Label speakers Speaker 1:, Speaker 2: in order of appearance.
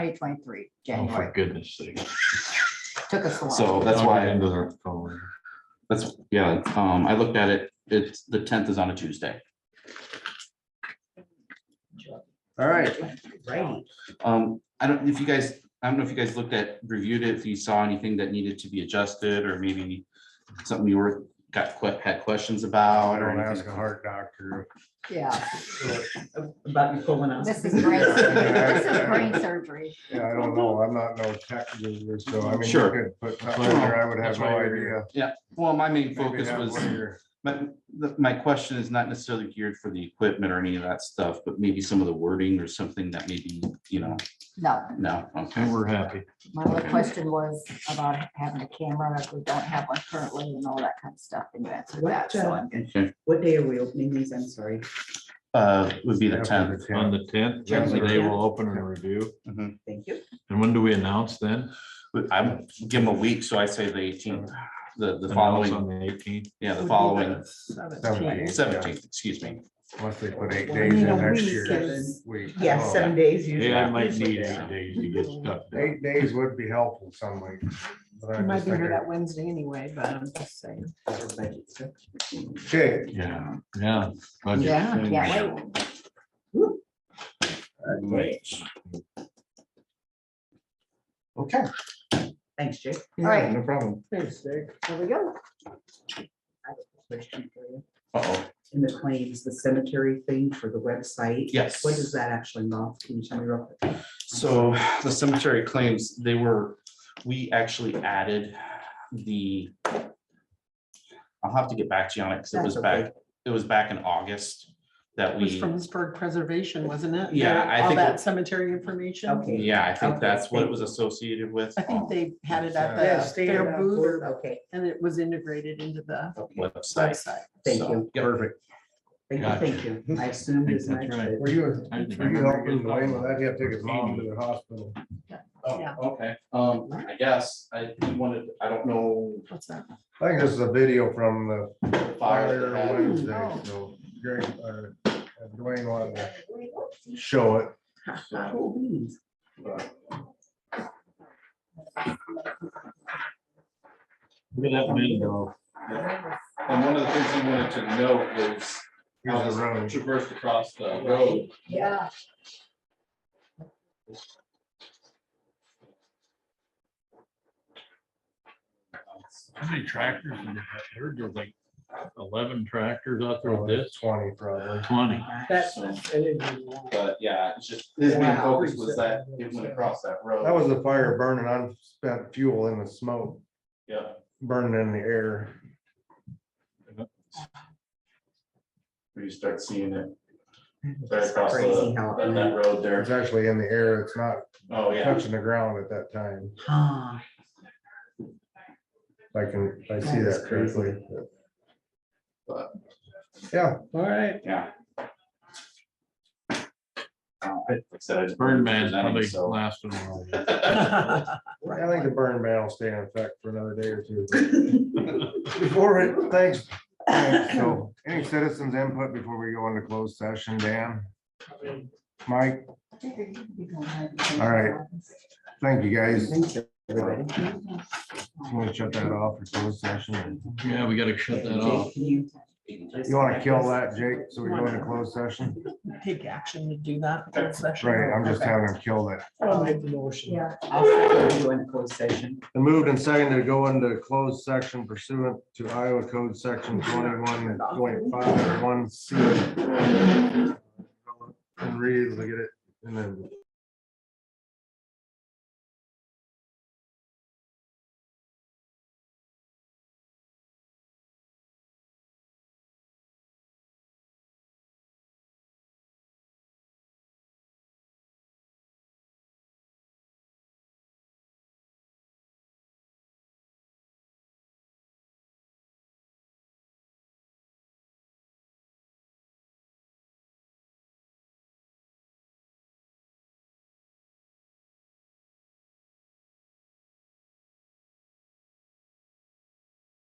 Speaker 1: twenty twenty-three,
Speaker 2: Oh,
Speaker 1: January.
Speaker 2: for goodness sake.
Speaker 1: Took us a while.
Speaker 2: So that's why,
Speaker 3: Into their phone.
Speaker 2: that's, yeah, um, I looked at it, it's, the tenth is on a Tuesday.
Speaker 3: All right,
Speaker 4: Right.
Speaker 2: Um, I don't, if you guys, I don't know if you guys looked at, reviewed it, if you saw anything that needed to be adjusted, or maybe something you were, got, que- had questions
Speaker 3: I
Speaker 2: about. or
Speaker 3: don't ask
Speaker 2: anything.
Speaker 3: a heart doctor.
Speaker 1: Yeah,
Speaker 4: About your colonoscopy.
Speaker 1: this is brain, this is brain surgery.
Speaker 3: Yeah, I don't know. I'm not no tech user, so I mean. you
Speaker 2: Sure.
Speaker 3: could Put something there. I would have
Speaker 2: That's
Speaker 3: no
Speaker 2: why you're
Speaker 3: idea.
Speaker 2: here. Well, my main
Speaker 3: Maybe
Speaker 2: focus
Speaker 3: have
Speaker 2: was,
Speaker 3: one of your-
Speaker 2: but the- my question is not necessarily geared for the equipment or any of that stuff, but maybe some of the wording or something that maybe, you know,
Speaker 1: No,
Speaker 2: no, okay.
Speaker 5: And we're happy.
Speaker 1: my other question was about having a camera, if we don't have one currently and all that kind of stuff, and you answered that, so
Speaker 2: uh,
Speaker 1: I'm good.
Speaker 2: Okay,
Speaker 4: uh, What day are we opening these? I'm sorry.
Speaker 2: uh, would be the
Speaker 3: Yeah, for
Speaker 2: tenth.
Speaker 5: On
Speaker 3: 10th.
Speaker 5: the tenth,
Speaker 3: Yeah.
Speaker 5: that's the day we'll open and review.
Speaker 4: Thank you.
Speaker 5: And when do we announce then?
Speaker 2: I'm, give them a week, so I say the eighteenth, the, the
Speaker 5: Announce
Speaker 2: following,
Speaker 5: On the eighteenth.
Speaker 2: yeah, the
Speaker 4: Would be
Speaker 2: following
Speaker 3: Seventeenth, yeah.
Speaker 2: seventeenth, excuse me.
Speaker 3: Unless they put eight
Speaker 4: We
Speaker 3: days
Speaker 4: need
Speaker 3: in
Speaker 4: a
Speaker 3: next
Speaker 4: week
Speaker 3: year's
Speaker 4: is-
Speaker 3: week.
Speaker 4: Yeah,
Speaker 3: Oh,
Speaker 4: seven days usually.
Speaker 5: Hey, I might
Speaker 4: usually
Speaker 5: need
Speaker 4: they
Speaker 5: eight
Speaker 4: are.
Speaker 5: days to get stuff done.
Speaker 3: Eight days would be helpful some weeks. but
Speaker 6: You
Speaker 3: I'm
Speaker 6: might
Speaker 3: just
Speaker 6: be here that
Speaker 3: thinking-
Speaker 6: Wednesday anyway, but I'm just saying.
Speaker 3: Okay,
Speaker 5: Yeah, yeah. budget
Speaker 1: Yeah,
Speaker 5: things.
Speaker 1: can't wait.
Speaker 3: okay.
Speaker 4: Thanks, Jake.
Speaker 1: All right,
Speaker 3: No problem.
Speaker 4: Thanks, Jake.
Speaker 1: there we go.
Speaker 4: Question for you.
Speaker 2: Uh-oh,
Speaker 4: In the claims, the cemetery thing for the website.
Speaker 2: yes.
Speaker 4: What does that actually involve? Can you tell me real quick?
Speaker 2: So the cemetery claims, they were, we actually added the. I'll have to get back to you on it, because it
Speaker 4: That's
Speaker 2: was
Speaker 4: okay.
Speaker 2: back, it was back in August that
Speaker 6: It was
Speaker 2: we,
Speaker 6: from Pittsburgh Preservation, wasn't it?
Speaker 2: Yeah, I
Speaker 6: All
Speaker 2: think it-
Speaker 6: that cemetery information.
Speaker 4: Okay.
Speaker 2: yeah, I think
Speaker 4: Okay,
Speaker 2: that's what it
Speaker 4: thank
Speaker 2: was
Speaker 4: you.
Speaker 2: associated with.
Speaker 6: I think they had it
Speaker 3: Yeah,
Speaker 6: at the fair booth
Speaker 4: Okay,
Speaker 6: and it was integrated into the
Speaker 2: Website.
Speaker 6: website.
Speaker 4: Thank
Speaker 2: So,
Speaker 4: you.
Speaker 2: yep.
Speaker 3: Perfect.
Speaker 4: thank you,
Speaker 5: Gotcha.
Speaker 4: thank you. I assumed
Speaker 5: Think
Speaker 4: as
Speaker 5: that's
Speaker 4: much.
Speaker 5: right.
Speaker 3: Were you,
Speaker 5: I
Speaker 3: were
Speaker 5: didn't
Speaker 3: you
Speaker 5: remember
Speaker 3: helping
Speaker 5: getting
Speaker 3: Dwayne
Speaker 5: that.
Speaker 3: with that? He had to take his mom to the hospital.
Speaker 2: Oh,
Speaker 6: Yeah.
Speaker 2: okay, um, I guess I you wanted, I don't know.
Speaker 6: What's that?
Speaker 3: I think this is a video from the
Speaker 2: the fire
Speaker 3: Fire
Speaker 2: that happened.
Speaker 4: Oh,
Speaker 3: Wednesday, so Greg, or uh, Dwayne wanted to show it.
Speaker 4: Cool beans.
Speaker 5: Look at that window.
Speaker 2: And one of the things he wanted to note was how
Speaker 3: Here's
Speaker 2: this
Speaker 3: the road.
Speaker 2: traversed across the road.
Speaker 1: Yeah.
Speaker 5: How many tractors? did they have? There were like eleven tractors out there with
Speaker 3: It's
Speaker 5: this,
Speaker 3: Twenty probably.
Speaker 5: twenty.
Speaker 6: That's-
Speaker 2: But yeah, it's just, his main focus was that it went across that road.
Speaker 3: That was the fire burning unspent fuel in the smoke,
Speaker 2: Yeah.
Speaker 3: burning in the air.
Speaker 2: Where you start seeing it right
Speaker 4: It's
Speaker 2: across
Speaker 4: Crazy
Speaker 2: the,
Speaker 4: how.
Speaker 2: that- that
Speaker 4: it-
Speaker 2: road there.
Speaker 3: It's actually in the air. It's not
Speaker 2: Oh, yeah.
Speaker 3: touching the ground at that time.
Speaker 4: Huh.
Speaker 3: If I can, if I see
Speaker 4: That is
Speaker 3: that correctly.
Speaker 2: But-
Speaker 3: Yeah,
Speaker 6: All right.
Speaker 2: Yeah. Uh, I- like I said, I just
Speaker 5: Burn man's probably
Speaker 2: so-
Speaker 5: lasting a while.
Speaker 3: I think the burn ban will stay in effect for another day or two. Before, it- thanks. Thanks. So, Any citizens input before we go into closed session, Dan? Mike,
Speaker 1: All
Speaker 3: right. thank you guys.
Speaker 4: Thank you, everybody.
Speaker 3: I'm gonna shut that off for closed session.
Speaker 5: Yeah, we gotta shut that off.
Speaker 4: Jake, can you just-
Speaker 3: You wanna kill that, Jake, so we go into closed session?
Speaker 6: Take action to do that. in closed session.
Speaker 3: Right, I'm just
Speaker 6: Okay.
Speaker 3: having them kill that.
Speaker 6: I'll make the motion.
Speaker 1: Yeah.
Speaker 4: I'll second you in closed session.
Speaker 3: And moved and seconded to go into closed section pursuant to Iowa Code Section twenty-one point five one C. And read, look at it, and then